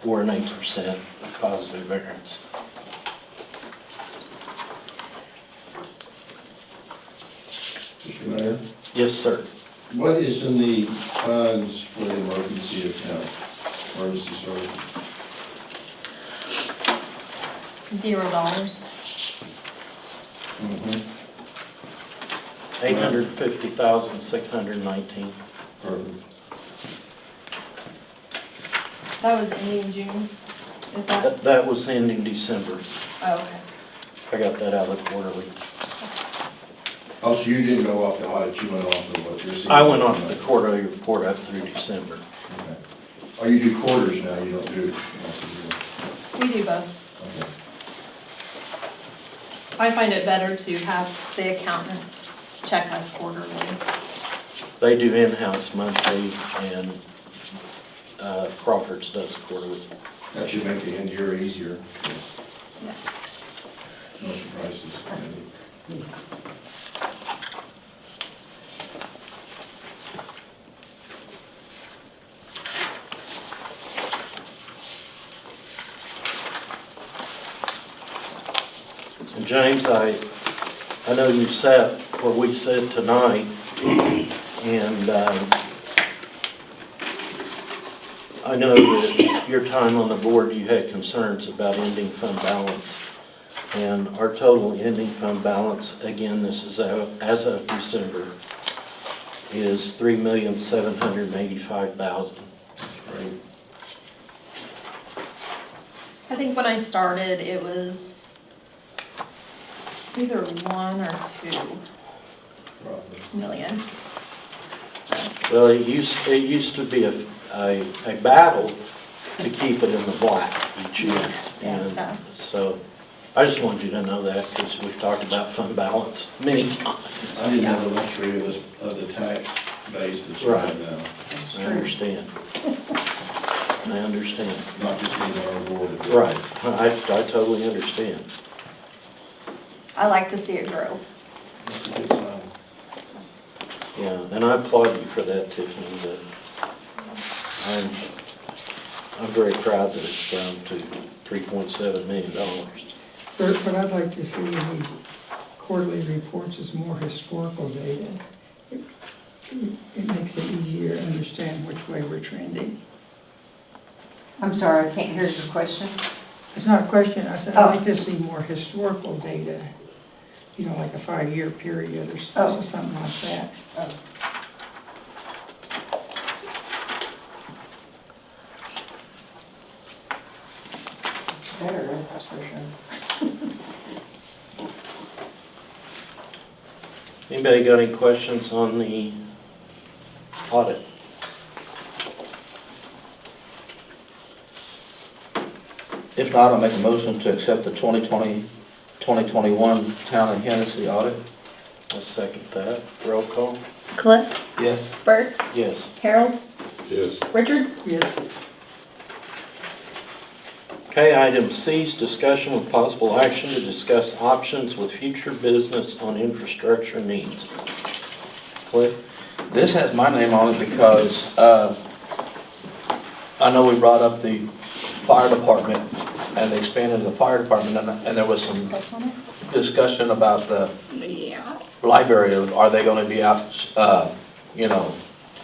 four and eight percent positive variance. Mr. Mayor, Yes, sir. what is in the funds for the emergency account, emergency services? Zero dollars. Mm-hmm. Mhm, Eight hundred fifty thousand, six hundred nineteen. Perfect. That was ending June, is that? That, that was ending December. Oh, okay. I got that out of the quarterly. Also, you didn't go off the audit, you went off of what you're seeing. I went off the quarterly report up through December. Okay. Oh, you do quarters now, you don't do. We do both. okay. I find it better to have the accountant check us quarterly. They do in-house monthly and, uh, Crawford's does quarterly. That should make the end year easier, Yes. no surprises. And James, I, I know you said what we said tonight, and um, I know that your time on the board, you had concerns about ending fund balance. And our total ending fund balance, again, this is a- as of December, is $3,785,000. Right. I think when I started, it was either one or two Probably. million. So, Well, it used, it used to be a, a a battle to keep it in the black each year. Yeah, And so, I just wanted you to know that, because we've talked about fund balance many times. I didn't have the luxury of the, of the tax base that you have now, that's I true. understand. I understand. not just being on our board. Right, I, I totally understand. I like to see it grow. That's a good sign. so. Yeah, and I applaud you for that, Tiffany, but I'm, I'm very proud that it's grown to three point seven million dollars. But what I'd like to see in these quarterly reports is more historical data. It it makes it easier to understand which way we're trending. I'm sorry, I can't hear your question. It's not a question, I said, I'd Oh. like to see more historical data, you know, like a five-year period or s- Oh. something like that. Better, that's for sure. Anybody got any questions on the audit? If not, I'll make a motion to accept the 2020, 2021 Town of Hennessy audit. I second that. Roll call? Cliff, Yes. Bert, Yes. Harold, Yes, Richard? Yes, Okay, item C is discussion with possible action to discuss options with future business on infrastructure needs. Cliff? This has my name on it because uh, I know we brought up the fire department and expanded the fire department, and and there was some Close on it? discussion about the Yeah. library, are they gonna be out, uh, you know,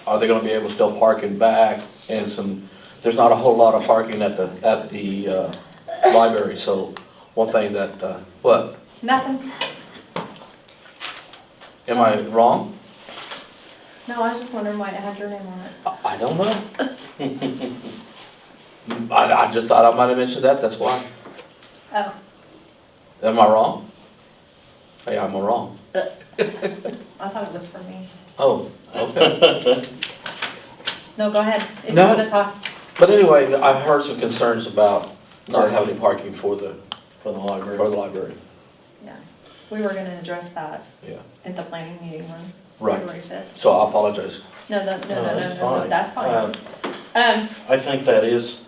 are they gonna be able to still park in back? And some, there's not a whole lot of parking at the, at the, uh, library, so one thing that, uh, what, Nothing. am I wrong? No, I was just wondering why it had your name on it. I I don't know. I, I just thought I might have mentioned that, that's why. Oh, Am I wrong? Hey, I'm wrong. I thought it was for me. Oh, okay. No, go ahead, if you No. wanna talk. But anyway, I heard some concerns about not having parking for the, For the for library. the library, Yeah, we were gonna address that yeah. at the planning meeting on Right. February fifth. So I apologize. No, no, no, no, no, that's no, no, fine. that's Uh, fine. Um, I think that is,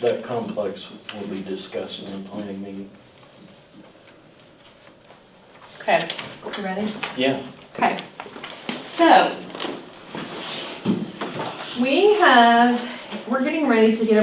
that complex will be discussed in the planning meeting. okay, you ready? Yeah. Okay, so. We have, we're getting ready to get a